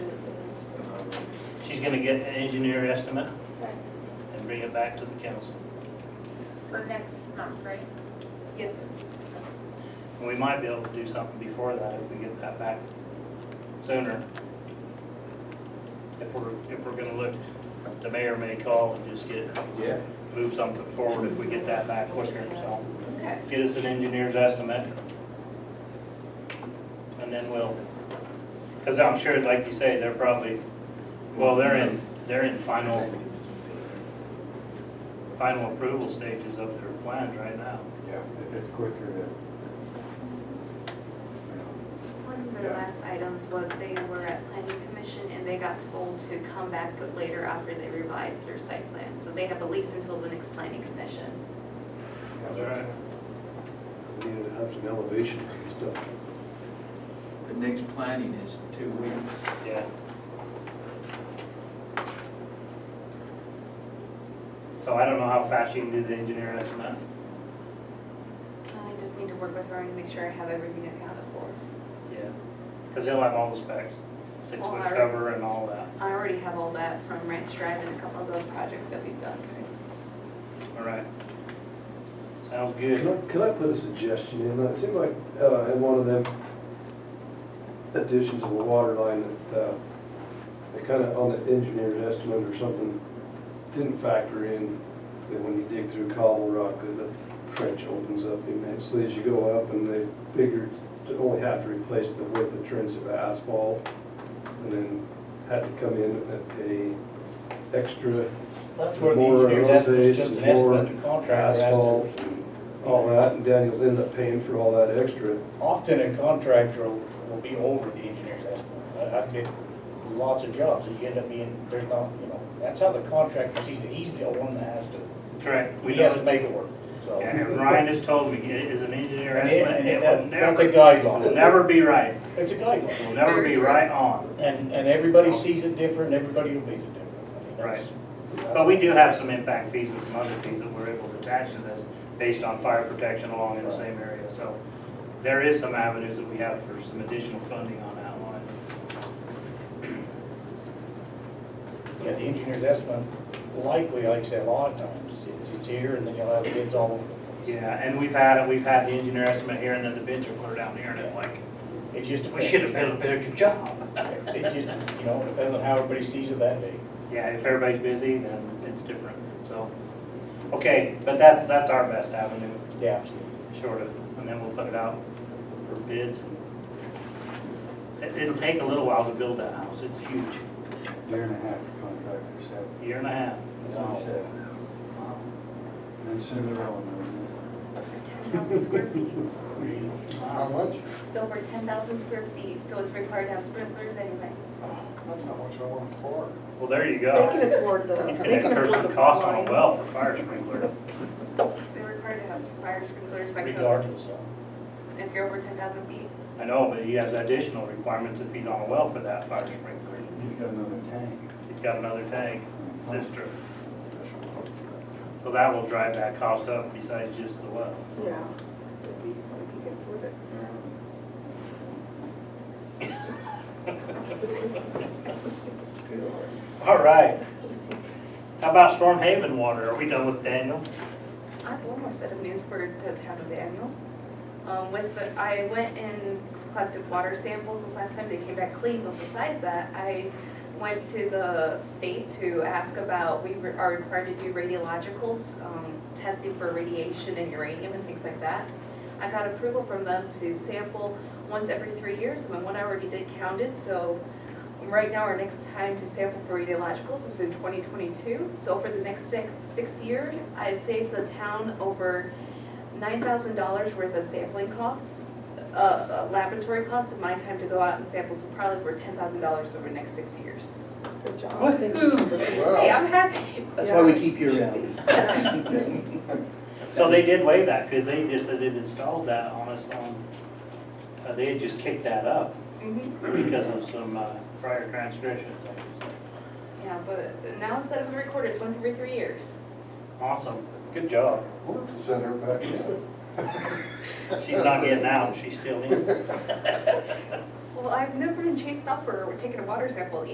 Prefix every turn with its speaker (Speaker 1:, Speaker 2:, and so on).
Speaker 1: she's gonna get an engineer estimate
Speaker 2: Right.
Speaker 1: and bring it back to the council.
Speaker 2: For next month, right?
Speaker 3: Yep.
Speaker 1: And we might be able to do something before that if we get that back sooner. If we're, if we're gonna look, the mayor may call and just get,
Speaker 4: Yeah.
Speaker 1: move something forward if we get that back quicker, so.
Speaker 2: Okay.
Speaker 1: Get us an engineer's estimate. And then we'll, because I'm sure, like you say, they're probably, well, they're in, they're in final, final approval stages of their plans right now.
Speaker 4: Yeah, if it's quicker than.
Speaker 3: One of their
Speaker 4: Yeah.
Speaker 3: last items was they were at planning commission and they got told to come back later after they revised their site plan. So they have a lease until the next planning commission.
Speaker 5: We Needed to have some elevations and stuff.
Speaker 6: The next planning is two weeks.
Speaker 1: Yeah. So I don't know how fast you can do the engineer estimate.
Speaker 3: I just need to work with Ryan to make sure I have everything accounted for.
Speaker 1: Yeah. Because they'll have all the specs, six
Speaker 3: Well,
Speaker 1: foot
Speaker 3: I-
Speaker 1: cover and all that.
Speaker 3: I already have all that from Ranch Drive and a couple of those projects that we've done.
Speaker 1: All right. Sounds
Speaker 7: Can
Speaker 1: good.
Speaker 7: I, can I put a suggestion in? It seemed like, uh, in one of them additions of a water line that, uh, they kind of, on the engineer's estimate or something, didn't factor in that when you dig through cobble rock, that the trench opens up immensely as you go up, and they figured to only have to replace the width of trench of asphalt, and then had to come in at a extra
Speaker 1: That's where the
Speaker 7: More
Speaker 1: engineer's estimate's
Speaker 7: road
Speaker 1: just an
Speaker 7: base, more
Speaker 1: estimate, the contractor has
Speaker 7: asphalt,
Speaker 1: to.
Speaker 7: all that, and Daniel's ended up paying for all that extra.
Speaker 1: Often a contractor will will be over the engineer's estimate. I- I've did lots of jobs, and you end up being, there's not, you know, that's how the contractor sees it, he's the one that has to,
Speaker 8: Correct. We
Speaker 1: he has
Speaker 8: know,
Speaker 1: to make it work, so.
Speaker 8: and Ryan just told me, it is an engineer
Speaker 1: And it-
Speaker 8: estimate,
Speaker 1: and
Speaker 8: it
Speaker 1: it-
Speaker 8: will
Speaker 1: That's a
Speaker 8: never, will
Speaker 1: guideline,
Speaker 8: never be right.
Speaker 1: it's a
Speaker 8: It
Speaker 1: guideline.
Speaker 8: will never be right on.
Speaker 1: And, and everybody sees it different, everybody will be different. I mean, that's-
Speaker 8: But we do have some impact fees and some other fees that we're able to attach to this based on fire protection along in the same area. So there is some avenues that we have for some additional funding on that line.
Speaker 1: Yeah, the engineer's estimate, likely, like I said, a lot of times, it's, it's here, and then you'll have bids all over. the place.
Speaker 8: Yeah, and we've had, it. we've had the engineer estimate here and then the bids are clear down here and it's like,
Speaker 1: It just depends.
Speaker 8: we should have done a better job.
Speaker 1: It just, you know, depends on how everybody sees it that day.
Speaker 8: Yeah, if everybody's busy, then it's different, so. Okay, but that's, that's our best avenue.
Speaker 1: Yeah, absolutely.
Speaker 8: short of, and then we'll put it out for bids. It- It'll take a little while to build that house, it's huge,
Speaker 4: Year and a half the contractor said,
Speaker 8: year and a half.
Speaker 4: that's what he said. And soon they're all in
Speaker 3: Ten thousand square feet.
Speaker 8: Wow.
Speaker 9: much?
Speaker 3: It's over ten thousand square feet, so it's required to have sprinklers anyway.
Speaker 9: That's not much I want for.
Speaker 8: Well, there you
Speaker 2: They can
Speaker 8: go.
Speaker 2: afford the,
Speaker 8: It's
Speaker 2: they
Speaker 8: gonna
Speaker 2: can afford
Speaker 8: incur
Speaker 2: the
Speaker 8: some cost on
Speaker 2: line.
Speaker 8: a well for fire sprinkler.
Speaker 3: They're required to have fire sprinklers by code
Speaker 1: Regardless, so.
Speaker 3: if you're over ten thousand feet.
Speaker 8: I know, but he has additional requirements if he's on a well for that fire sprinkler.
Speaker 4: there. He's got another tank.
Speaker 8: He's got another tank, sister. So that will drive that cost up besides just the well. so.
Speaker 2: Yeah. If you if you can afford it.
Speaker 8: All right. How about Storm Haven water? Are we done with Daniel?
Speaker 3: I have one more set of news for the town of Daniel. Um, with the, I went and collected water samples this last time, they came back clean, but besides that, I went to the state to ask about, we re- are required to do radiologicals, um, testing for radiation and uranium and things like that. I got approval from them to sample once every three years, and the one I already did counted, so Right now, our next time to sample for radiologicals is in 2022. So for the next six, six years, I saved the town over $9,000 worth of sampling costs, uh, uh, laboratory costs, and my time to go out and sample, so probably for $10,000 over the next six years.
Speaker 2: Good job.
Speaker 3: Hey,
Speaker 9: Wow.
Speaker 3: I'm happy.
Speaker 1: That's why we keep you around.
Speaker 8: So they did waive that, because they just, they installed that on us on, uh, they had just kicked that up
Speaker 3: Mhm.
Speaker 8: because of some uh, prior transgressions.
Speaker 3: Yeah, but now instead of every quarter, it's once every three years.
Speaker 8: Awesome, good job.
Speaker 9: We'll have to send her back in.
Speaker 8: She's not getting out, she's still in.
Speaker 3: Well, I've never been chased up for taking a water sample